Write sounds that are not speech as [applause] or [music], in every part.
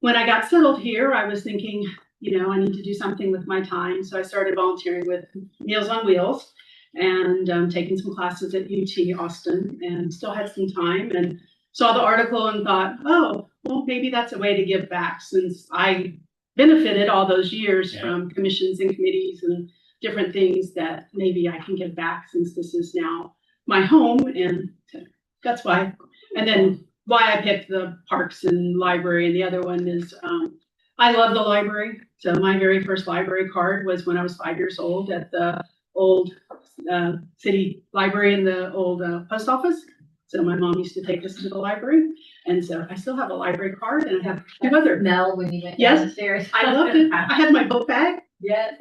when I got settled here, I was thinking, you know, I need to do something with my time. So I started volunteering with Meals on Wheels and um, taking some classes at UT Austin and still had some time and saw the article and thought, oh, well, maybe that's a way to give back since I benefited all those years Yeah. from commissions and committees and different things that maybe I can give back since this is now my home. And that's why. And then why I picked the parks and library. And the other one is um, I love the library. So my very first library card was when I was five years old at the old uh, city library in the old uh, post office. So my mom used to take us to the library. And so I still have a library card and I have two other. Mel when you went Yes, downstairs. I [laughs] loved it. I had my book bag. Yes.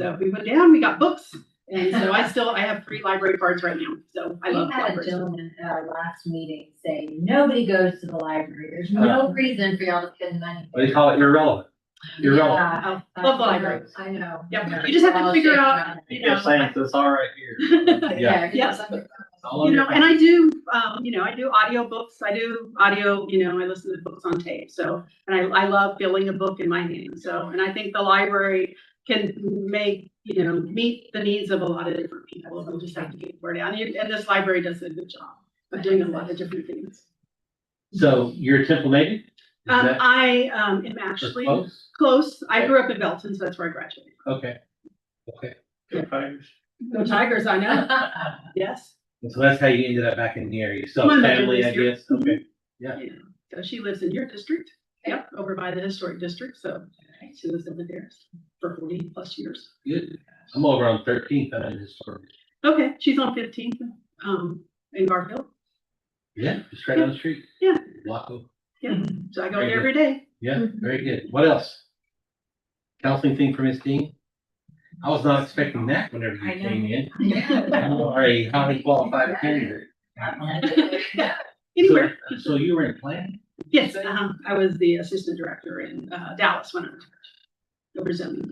So we went down, we got books. And so I still, I have three library cards right now. So I love We had a libraries. gentleman at our last meeting say, nobody goes to the library. There's no reason for y'all to spend money. What do you call it? Irrelevant. Irrelevant. Yeah, Oh, I Love the know, library. I know. Yeah, you just have to figure out, you know. it's all right Yeah. Yes. Yes. [laughs] you know, and I do, um, you know, I do audiobooks, I do audio, you know, I listen to books on tape, so, and I, I love feeling a book in my hand, so, and I think the library can make, you know, meet the needs of a lot of different people, we'll just have to get the word out, and, and this library does a good job of doing a lot of different things. So you're a Temple native? Is Um, that Oh, I, um, am for actually close? close, I grew up in Belton, so that's where I graduated. Okay. Okay. here. Go Tigers, I know, Mm-hmm. [laughs] yes. And so that's how you ended up back in the area. So My mother family, I lives here. guess. Okay. Yeah. Yeah, so she lives in your district, yep, over by the historic district, so she lives over there for forty plus years. Good. I'm over on thirteenth. I'm in historic. Okay, she's on fifteenth, um, in Garfield, Yeah, just right down the street. Yeah. Block over. yeah, so I go Very there every day. Yeah, very good. What else? Counseling thing for Miss Dean? I was not expecting that whenever you I know. came in. Yeah. [laughs] You are a highly qualified candidate. Uh-huh. Anywhere, So- uh, So you were in [laughs] planning? yes, uh-huh, I was the assistant director in, uh, Dallas when I was over zoning.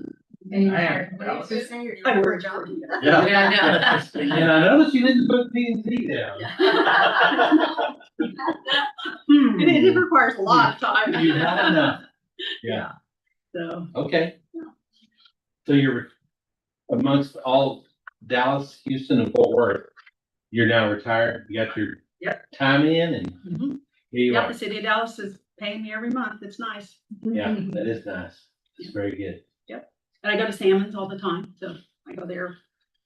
And you I were- am. what did you say? You're- I worked for you. Yeah, [laughs] And I noticed you didn't put P and Z down. I know. [laughs] And it it requires a lot of time. [laughs] You had enough. Yeah, [laughs] So, okay. So you're amongst all Dallas, Houston and Fort Worth, you're now retired, you got your time in and mhm. here you yeah, are. the city of Dallas is paying me every month, it's nice, Yeah, that is nice. It's very good. and I go to Salmons all the time, so I go there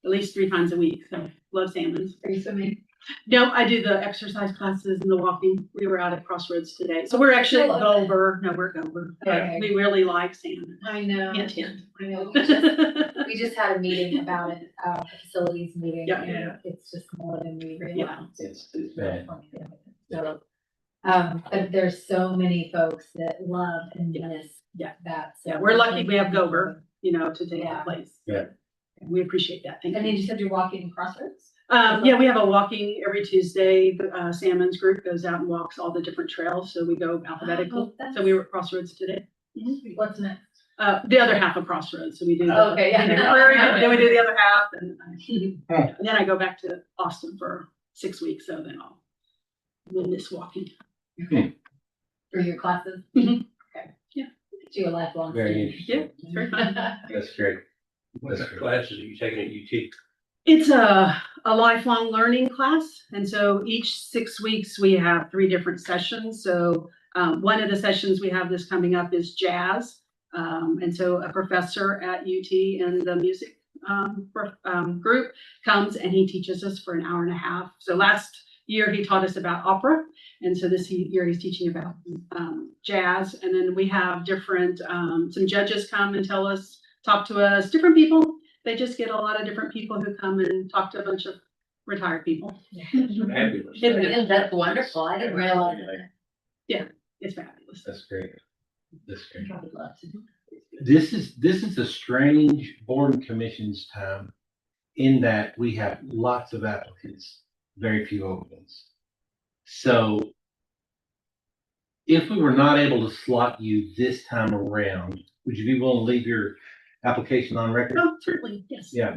at least three times a week, so love Salmons. [laughs] Are you swimming? No, I do the exercise classes and the walking. We were out at Crossroads today. So we're actually I love it. Gober, no, we're Gober. Okay. We really like salmon. I know. Hint, hint. I know. We just- Yeah, We just had a meeting about it, uh, facilities meeting. Yeah. and It's just more than we realized. It's, it's really bad. fun. So, um, but there's so many folks that love and miss Yeah. that. so- we're lucky we have Gober, [laughs] you know, to take that Yeah. place. Yeah. We appreciate that. Thank And then you. you said you're walking crossroads? Um, yeah, we have a walking every Tuesday. The uh, Salmons group goes out and walks all the different trails. So we go alphabetical. Oh, that's- So we were at Crossroads today. What's next? [laughs] Uh, the other half of Crossroads. So we do. the- Okay, we do the prairie, Then we do the other half and uh, And then I go back to Austin for six weeks, so then I'll win this walking. For your classes? Mhm. Okay. Yeah. Do a lifelong. Very student. Yeah, interesting. it's very fun. [laughs] That's great. What's the classes that you taking at UT? It's a, a lifelong learning class, and so each six weeks, we have three different sessions. So um, one of the sessions we have this coming up is jazz. Um, and so a professor at UT in the music um, pro- um, group comes and he teaches us for an hour and a half. So last year, he taught us about opera, and so this he- year, he's teaching about um, jazz. And then we have different, um, some judges come and tell us, talk to us, different people, they just get a lot of different people who come and talk to a bunch of retired people. Fabulous. It- Yeah, That's wonderful. I didn't realize. that. It's fabulous. That's great. That's great. I would love to. do This is, this is a strange board and commissions time in that we have lots of applicants, very few openings. So if we were not able to slot you this time around, would you be willing to leave your application on record? Oh, certainly, yes. Yeah,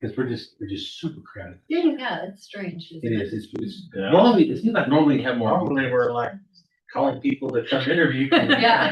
because we're just, we're just super crowded. Yeah, that. yeah. Yeah, it's strange. It is, it's, it's Yeah. normally, it seems like normally you have more. [laughs] Normally, we're like calling people to come interview. Yeah.